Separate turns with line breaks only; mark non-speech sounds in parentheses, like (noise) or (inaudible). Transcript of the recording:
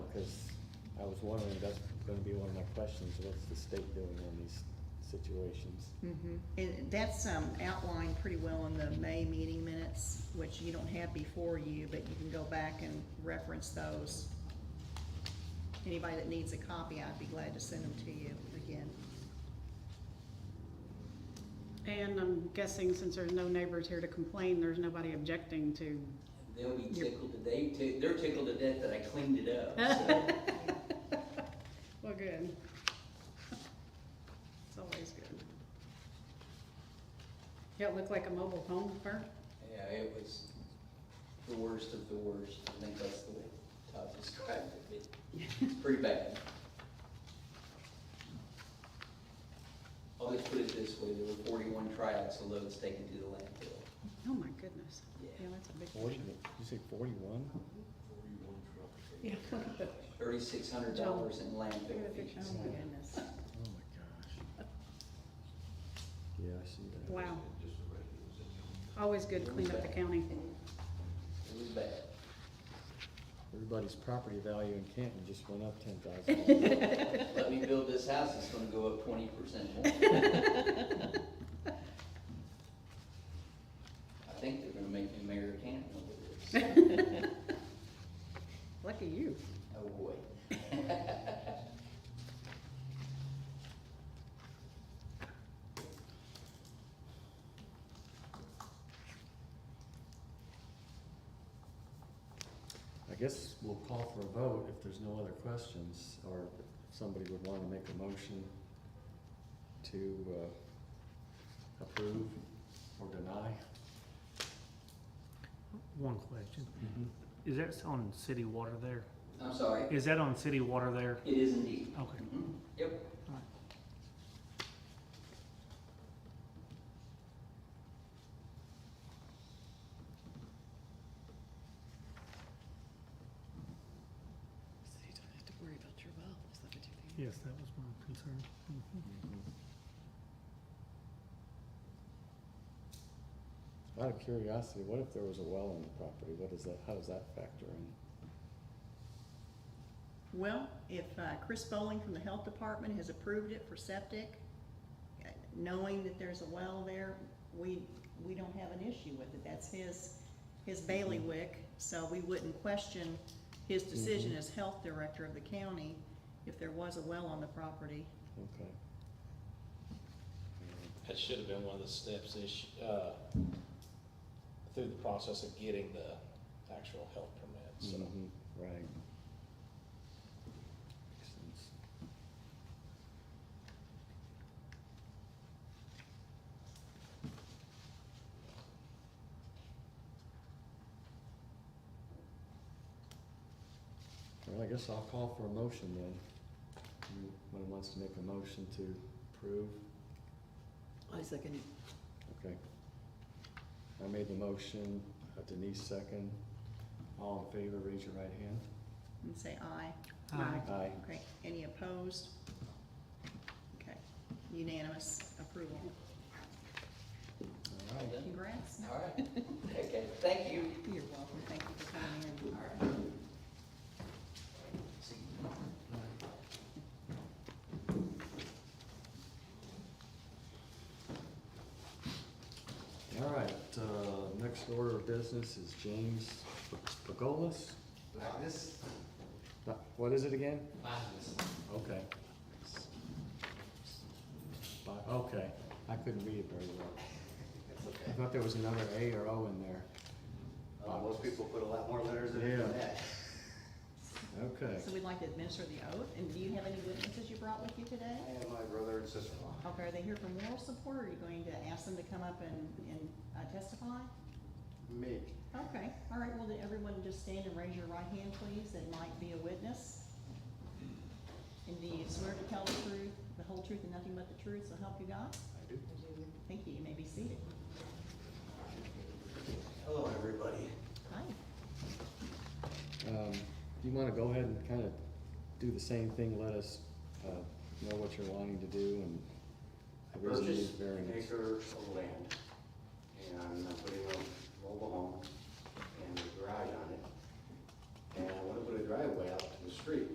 I was wondering, that's gonna be one of my questions, what's the state doing on these situations?
Mhm. And that's um, outlined pretty well in the May meeting minutes, which you don't have before you, but you can go back and reference those. Anybody that needs a copy, I'd be glad to send them to you again.
And I'm guessing since there's no neighbors here to complain, there's nobody objecting to.
They'll be
Yep.
tickled to, they, tick- they're tickled to death that I cleaned it up, so.
Well, good. It's always good. Yeah, it looked like a mobile home park.
Yeah, it was the worst of the worst. I think that's the way Todd described it. It's pretty bad. I'll just put it this way, there were forty-one tryouts of loads taken to the landfill.
Oh, my goodness.
Yeah.
Yeah, that's a big.
Forty, did you say forty-one?
Yeah, look at the,
Thirty-six hundred dollars in
look at
landfill
the picture.
fees.
Oh, my goodness.
Oh my gosh. Yeah, I see that.
Wow. Always good to clean up the county.
It was bad.
Everybody's property value in Canton just went up ten (laughs) thousand.
Let me build this house, it's gonna go up twenty percent more. I think they're gonna make me mayor of Canton over this.
Lucky you.
Oh, boy.
I guess we'll call for a vote if there's no other questions, or if somebody would wanna make a motion to, uh, approve or deny.
One question.
Mm-hmm.
Is that on city water there?
I'm sorry.
Is that on city water there?
It is indeed.
Okay.
Mhm. Yep.
Alright.
So you don't have to worry about your well, is that what you think?
Yes, that was my concern. Mhm.
Out of curiosity, what if there was a well on the property? What is that, how does that factor in?
Well, if uh, Chris Bowling from the Health Department has approved it for septic, uh, knowing that there's a well there, we, we don't have an issue with it. That's his, his bailiwick, so we wouldn't question his decision as health director of the county if there was a well on the property.
Okay.
That should have been one of the steps ish, uh, through the process of getting the actual health permit, so.
Mhm, Right. Makes sense. Well, I guess I'll call for a motion then. Anyone wants to make a motion to approve?
I second it.
Okay. I made the motion, uh, Denise second. All in favor, raise your right hand.
And say aye.
Aye.
Aye.
Okay, any opposed? Okay, unanimous approval.
All right.
Congrats.
All right. Okay, thank you.
You're welcome, thank you for coming in.
All right. See you.
All right, uh, next order of business is James Pagolis.
Magnus?
Uh, What is it again?
Magnus.
Okay. Bi- Okay, I couldn't read it very well.
That's
I
okay.
thought there was another A or O in there.
Uh, most people put a lot more letters in it
Yeah.
than that.
Okay,
So we'd like to administer the oath, and do you have any witnesses you brought with you today?
I am my brother and sister-in-law.
Okay, are they here for moral support, or are you going to ask them to come up and, and uh, testify?
Me.
Okay, all right, well, then everyone just stand and raise your right hand, please, that might be a witness. And do you swear to tell the truth, the whole truth and nothing but the truth, so help you God?
I do.
Thank you, you may be seated.
Hello, everybody.
Hi.
um, do you wanna go ahead and kinda do the same thing, let us, uh, know what you're wanting to do and
I
the reason you need
purchased an
variance?
acre of land, and I'm putting a mobile home and a garage on it. And I wanna put a driveway out to the street.